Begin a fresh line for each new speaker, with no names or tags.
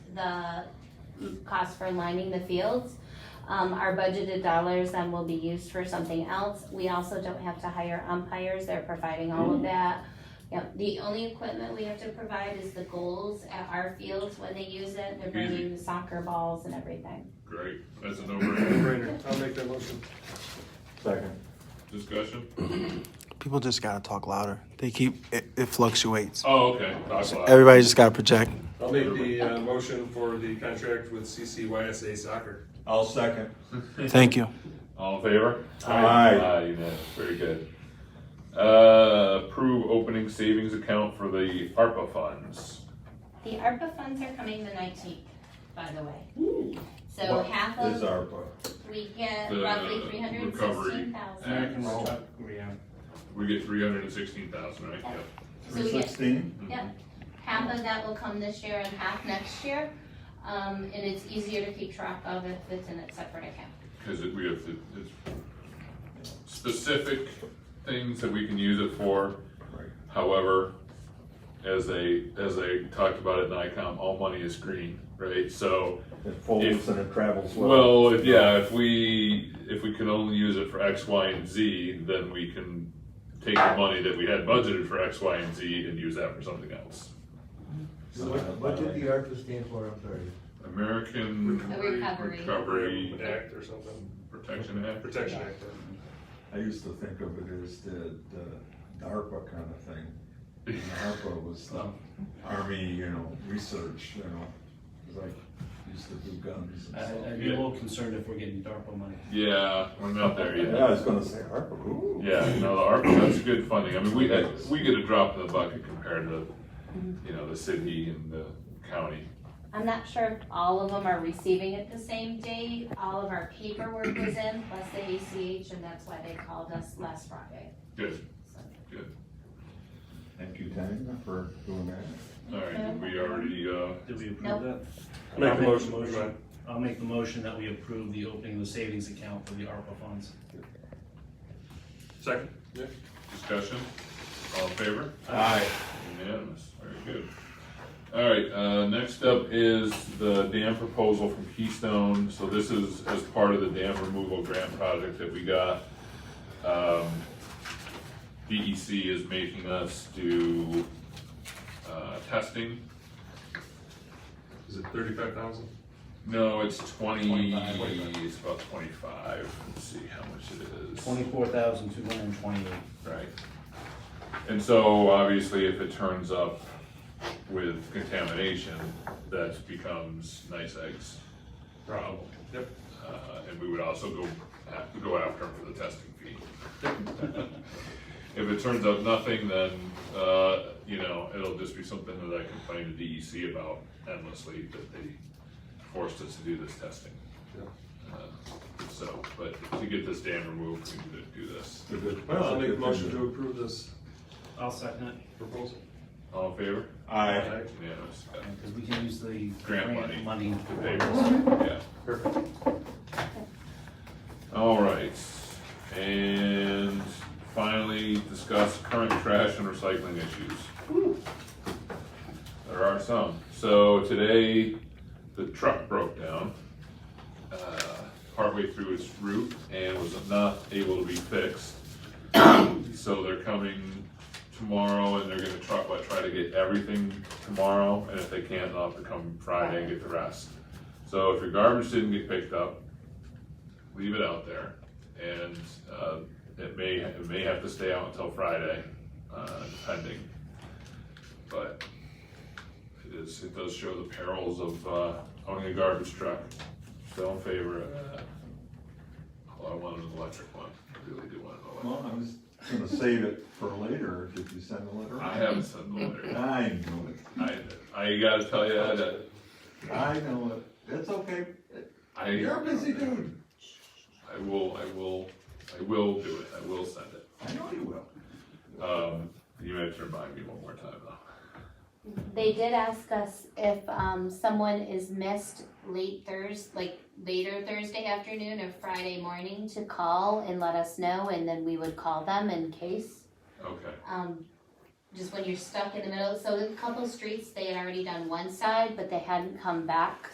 the cost for lining the fields. Um, our budgeted dollars then will be used for something else. We also don't have to hire umpires, they're providing all of that. Yep, the only equipment we have to provide is the goals at our fields when they use it, they're bringing the soccer balls and everything.
Great, that's a no-brainer.
No-brainer. I'll make that motion.
Second.
Discussion?
People just gotta talk louder. They keep it, it fluctuates.
Oh, okay. That's why.
Everybody just gotta project.
I'll make the, uh, motion for the contract with CCYSA Soccer.
I'll second.
Thank you.
All in favor?
Aye.
Aye, unanimous, very good. Uh, approve opening savings account for the ARPA funds.
The ARPA funds are coming the nineteenth, by the way. So
What
half
Is
of,
our part.
we get
The
roughly three hundred and
recovery
sixteen thousand.
act. We get three hundred and sixteen thousand, right? Yep.
So we
Three
get
sixteen?
Yep, half of that will come this year and half next year. Um, and it's easier to keep track of if it's in a separate account.
Cause it, we have, to- it's specific things that we can use it for.
Right.
However, as they, as they talked about at NICOM, all money is green, right? So
It folds and it travels well.
Well, if, yeah, if we, if we can only use it for X, Y, and Z, then we can take the money that we had budgeted for X, Y, and Z and use that for something else.
So What, what did the ARPA stand for, I'm sorry?
American
Recovery.
Recovery
Act or something,
Protection Act.
Protection Act.
I used to think of it as the, the ARPA kind of thing. And ARPA was the army, you know, research, you know, it's like, used to do guns and
I- I'd
stuff.
be a little concerned if we're getting DARPA money.
Yeah, we're not there
Yeah, I
yet.
was gonna say ARPA, ooh.
Yeah, no, the ARPA, that's good funding. I mean, we, we get a drop in the bucket compared to, you know, the city and the county.
I'm not sure if all of them are receiving it the same day. All of our paperwork was in, plus the ACH, and that's why they called us last Friday.
Good,
So,
Thank you, Tanya, for doing that.
all right, did we already, uh,
Did we
Nope.
approve
Make
that?
the
I'll
motion, Go ahead.
I'll make the motion that we approve the opening of the savings account for the ARPA funds.
Second? Yeah.
discussion? All in favor?
Aye.
Unanimous, very good. All right, uh, next up is the dam proposal from Keystone. So this is as part of the dam removal grant project that we got. Um, DEC is making us do, uh, testing.
Is it thirty-five thousand?
No, it's twenty,
25.
it's about twenty-five. Let's see how much it is.
Twenty-four thousand, two hundred and twenty-eight.
Right. And so obviously if it turns up with contamination, that becomes nice eggs problem.
Yep.
Uh, and we would also go, have to go after them for the testing fee. If it turns up nothing, then, uh, you know, it'll just be something that I complain to DEC about endlessly that they forced us to do this testing.
Yeah.
Uh, So, but to get this dam removed, we need to do this.
It's a good-
Well, I'll
it's a
make a
good
motion
thing
to approve this
I'll second it,
proposal.
All in favor?
Aye.
Aye.
Unanimous.
because we can use the
Grant money.
grant money.
The papers, yeah.
Perfect.
All right, and finally, discuss current trash and recycling issues. There are some. So today, the truck broke down, uh, partway through its route and was not able to be fixed. So they're coming tomorrow and they're gonna try, what, try to get everything tomorrow, and if they can't, they'll have to come Friday and get the rest. So if your garbage didn't get picked up, leave it out there, and, uh, it may, it may have to stay out until Friday, uh, depending. But it is, it does show the perils of, uh, owning a garbage truck, still in favor of that. Although I want an electric one, I really do want an electric.
Well, I was gonna save it for later, did you send the letter?
I haven't sent the letter,
I knew it.
I, I gotta tell you, that
I know it. That's okay.
I.
You're a busy dude.
I will, I will, I will do it, I will send it.
I know you will.
Um, you may have to remind me one more time though.
They did ask us if, um, someone is missed late Thurs, like later Thursday afternoon or Friday morning to call and let us know, and then we would call them in case.
Okay,
Um, just when you're stuck in the middle. So a couple streets, they had already done one side, but they hadn't come back